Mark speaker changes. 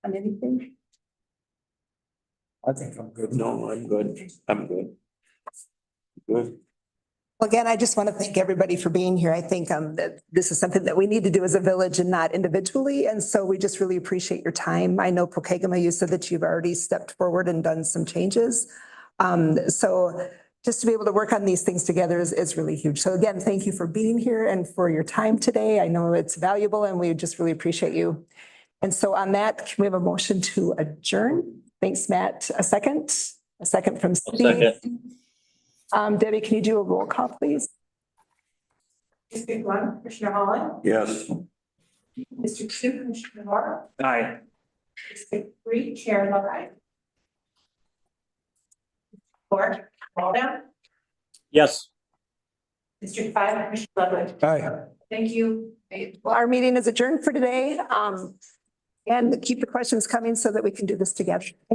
Speaker 1: on anything?
Speaker 2: I think I'm good. No, I'm good. I'm good. Good.
Speaker 1: Well, Again, I just want to thank everybody for being here. I think um that this is something that we need to do as a village and not individually. And so we just really appreciate your time. I know Pokegama, you said that you've already stepped forward and done some changes. Um, so just to be able to work on these things together is is really huge. So again, thank you for being here and for your time today. I know it's valuable and we just really appreciate you. And so on that, can we have a motion to adjourn? Thanks, Matt. A second, a second from Steve. Um, Debbie, can you do a roll call, please?
Speaker 3: Ms. one, Commissioner Holland,
Speaker 2: Yes.
Speaker 3: Mr. Two, Commissioner Moore,
Speaker 2: Aye.
Speaker 3: Mr. Three, Chair Lawrence. Four, Walden,
Speaker 4: Yes.
Speaker 3: District Five, Commissioner Ludwig.
Speaker 2: Aye.
Speaker 3: Thank you. Thank
Speaker 1: Well, our meeting is adjourned for today. Um, and keep the questions coming so that we can do this together.